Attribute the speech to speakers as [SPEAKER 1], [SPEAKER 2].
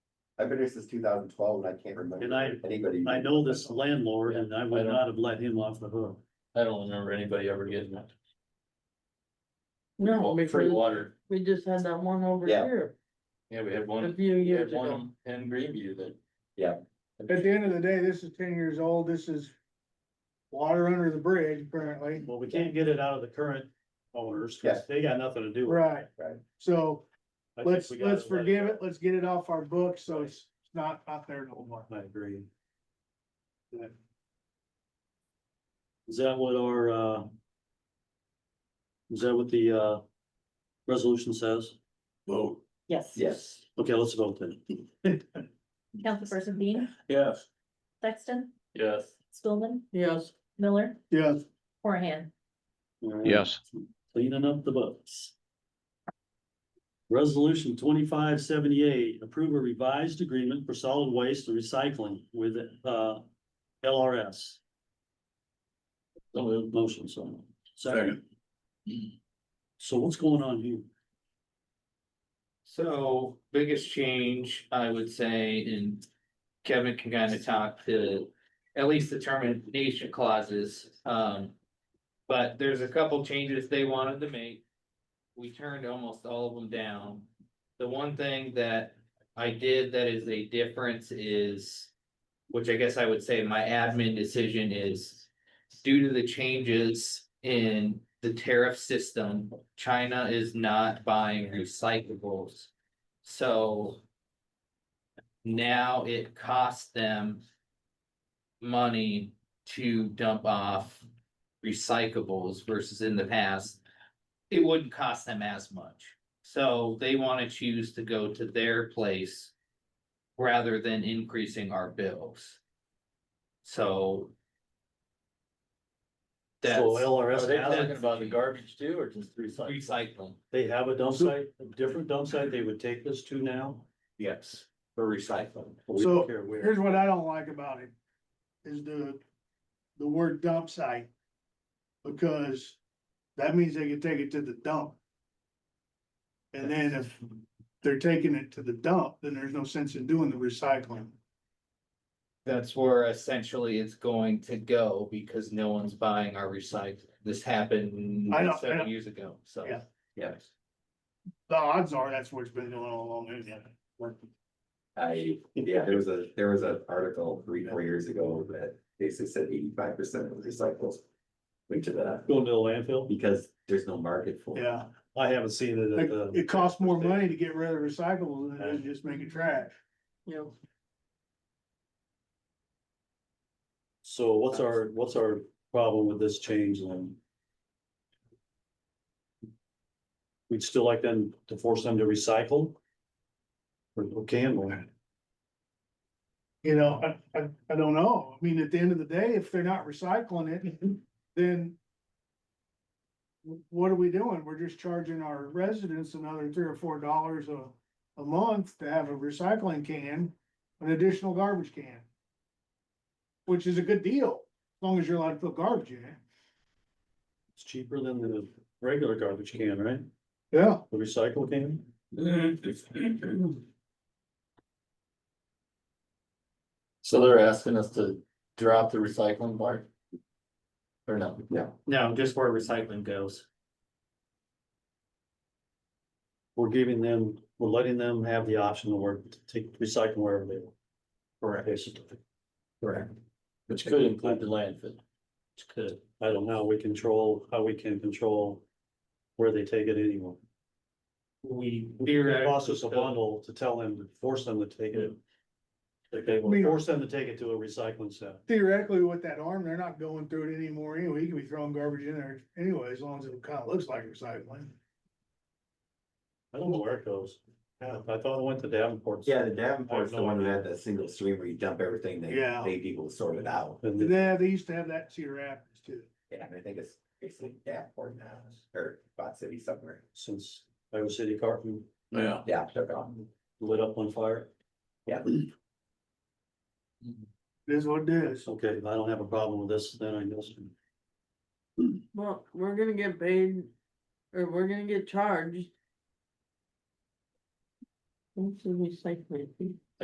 [SPEAKER 1] I've been here since two thousand twelve and I can't
[SPEAKER 2] And I-
[SPEAKER 1] remember anybody.
[SPEAKER 2] I know this landlord and I
[SPEAKER 3] I
[SPEAKER 2] would
[SPEAKER 3] don't-
[SPEAKER 2] not have let him off the hook.
[SPEAKER 3] I don't remember anybody ever getting it.
[SPEAKER 4] No,
[SPEAKER 3] Well, free
[SPEAKER 4] because
[SPEAKER 3] water.
[SPEAKER 4] we just had that one over
[SPEAKER 1] Yeah.
[SPEAKER 4] here
[SPEAKER 3] Yeah, we had
[SPEAKER 4] a
[SPEAKER 3] one,
[SPEAKER 4] few
[SPEAKER 3] we had
[SPEAKER 4] years ago.
[SPEAKER 3] one in Greenview that.
[SPEAKER 5] At the end of the day, this is ten years old, this is water under the bridge currently,
[SPEAKER 2] Well, we can't get it out of the current owners, cause they got nothing to do with it.
[SPEAKER 5] right?
[SPEAKER 1] Right.
[SPEAKER 5] So
[SPEAKER 2] I think
[SPEAKER 5] let's,
[SPEAKER 2] we gotta
[SPEAKER 5] let's
[SPEAKER 2] let
[SPEAKER 5] forgive it, let's get it off our books, so it's it's not out there no more.
[SPEAKER 2] I agree. Yeah. Is that what our, uh? Is that what the, uh, resolution says? Vote.
[SPEAKER 6] Yes.
[SPEAKER 1] Yes,
[SPEAKER 2] Okay, let's vote then.
[SPEAKER 6] Councilperson Bean,
[SPEAKER 3] Yes.
[SPEAKER 6] Sexton,
[SPEAKER 3] Yes.
[SPEAKER 6] Stulman,
[SPEAKER 4] Yes,
[SPEAKER 6] Miller,
[SPEAKER 5] Yes.
[SPEAKER 6] Horahan.
[SPEAKER 7] Yes.
[SPEAKER 2] Cleaning up the books. Resolution twenty-five seventy-eight, approve a revised agreement for solid waste and recycling with, uh, LRS. So moved. motion, so. Second. So what's going on here?
[SPEAKER 3] So biggest change, I would say, and Kevin can kind of talk to at least the termination clauses, um. But there's a couple changes they wanted to make. We turned almost all of them down. The one thing that I did that is a difference is. Which I guess I would say my admin decision is due to the changes in the tariff system. China is not buying recyclables. So. Now it costs them. Money to dump off recyclables versus in the past. It wouldn't cost them as much, so they wanna choose to go to their place. Rather than increasing our bills. So. That's
[SPEAKER 2] So LRS,
[SPEAKER 3] Are they
[SPEAKER 2] has
[SPEAKER 3] talking
[SPEAKER 2] it.
[SPEAKER 3] about the garbage too, or just recycling?
[SPEAKER 2] they have a dump site, a different dump site they would take this to now?
[SPEAKER 3] yes, for recycling.
[SPEAKER 2] But we
[SPEAKER 5] So,
[SPEAKER 2] don't care where.
[SPEAKER 5] Here's what I don't like about it, is the, the word dump site. Because that means they can take it to the dump. And then if they're taking it to the dump, then there's no sense in doing the recycling.
[SPEAKER 3] That's where essentially it's going to go because no one's buying our recycling. This happened
[SPEAKER 5] I know, I know.
[SPEAKER 3] seven years ago, so.
[SPEAKER 5] Yeah.
[SPEAKER 3] Yes.
[SPEAKER 5] The odds are that's what's been going on all along. isn't it?
[SPEAKER 1] I, yeah, there was a, there was an article three, four years ago that basically said eighty-five percent of recycles. Went to that,
[SPEAKER 2] Going to the landfill?
[SPEAKER 1] because there's no market for it.
[SPEAKER 5] Yeah,
[SPEAKER 2] I haven't seen it at
[SPEAKER 5] it,
[SPEAKER 2] the.
[SPEAKER 5] it costs more money to get rid of recyclables than it is just making trash.
[SPEAKER 4] you know.
[SPEAKER 2] So what's our, what's our problem with this change then? We'd still like them to force them to recycle? Or or can we?
[SPEAKER 5] You know, I, I, I don't know. I mean, at the end of the day, if they're not recycling it, then. wh- What are we doing? We're just charging our residents another three or four dollars a, a month to have a recycling can, an additional garbage can. Which is a good deal, as long as you're allowed to put garbage in it.
[SPEAKER 2] It's cheaper than the regular garbage can, right?
[SPEAKER 5] Yeah.
[SPEAKER 2] The recycle can?
[SPEAKER 3] So they're asking us to drop the recycling part? Or no?
[SPEAKER 1] No.
[SPEAKER 3] No, just where recycling goes.
[SPEAKER 2] We're giving them, we're letting them have the option to work, to take recycle wherever they want. Correct. Basically.
[SPEAKER 1] Correct.
[SPEAKER 3] Which could include the landfill. Which could.
[SPEAKER 2] I don't know, we control, how we can control where they take it anymore.
[SPEAKER 3] We.
[SPEAKER 2] It costs us a bundle to tell them, to force them to take it.
[SPEAKER 1] Hmm.
[SPEAKER 2] Like they will
[SPEAKER 5] We-
[SPEAKER 2] force them to take it to a recycling center.
[SPEAKER 5] Theoretically, with that arm, they're not going through it anymore anyway. You can be throwing garbage in there anyway, as long as it kinda looks like recycling.
[SPEAKER 2] I don't know where it goes. Yeah, I thought it went to Davenport.
[SPEAKER 1] Yeah, the Davenport's the one who had that single stream where you dump everything, they,
[SPEAKER 5] Yeah.
[SPEAKER 1] they people sort it out.
[SPEAKER 2] And the-
[SPEAKER 5] Yeah, they used to have that in Cedar Rapids too.
[SPEAKER 1] Yeah, and I think it's basically Davenport now, or Bot City somewhere.
[SPEAKER 2] since Iowa City Carton
[SPEAKER 3] Yeah.
[SPEAKER 1] Yeah, took it on.
[SPEAKER 2] lit up on fire.
[SPEAKER 1] Yeah.
[SPEAKER 5] It is what it is.
[SPEAKER 2] Okay, I don't have a problem with this, then I guess.
[SPEAKER 4] Well, we're gonna get paid, or we're gonna get charged. What's the recycling fee?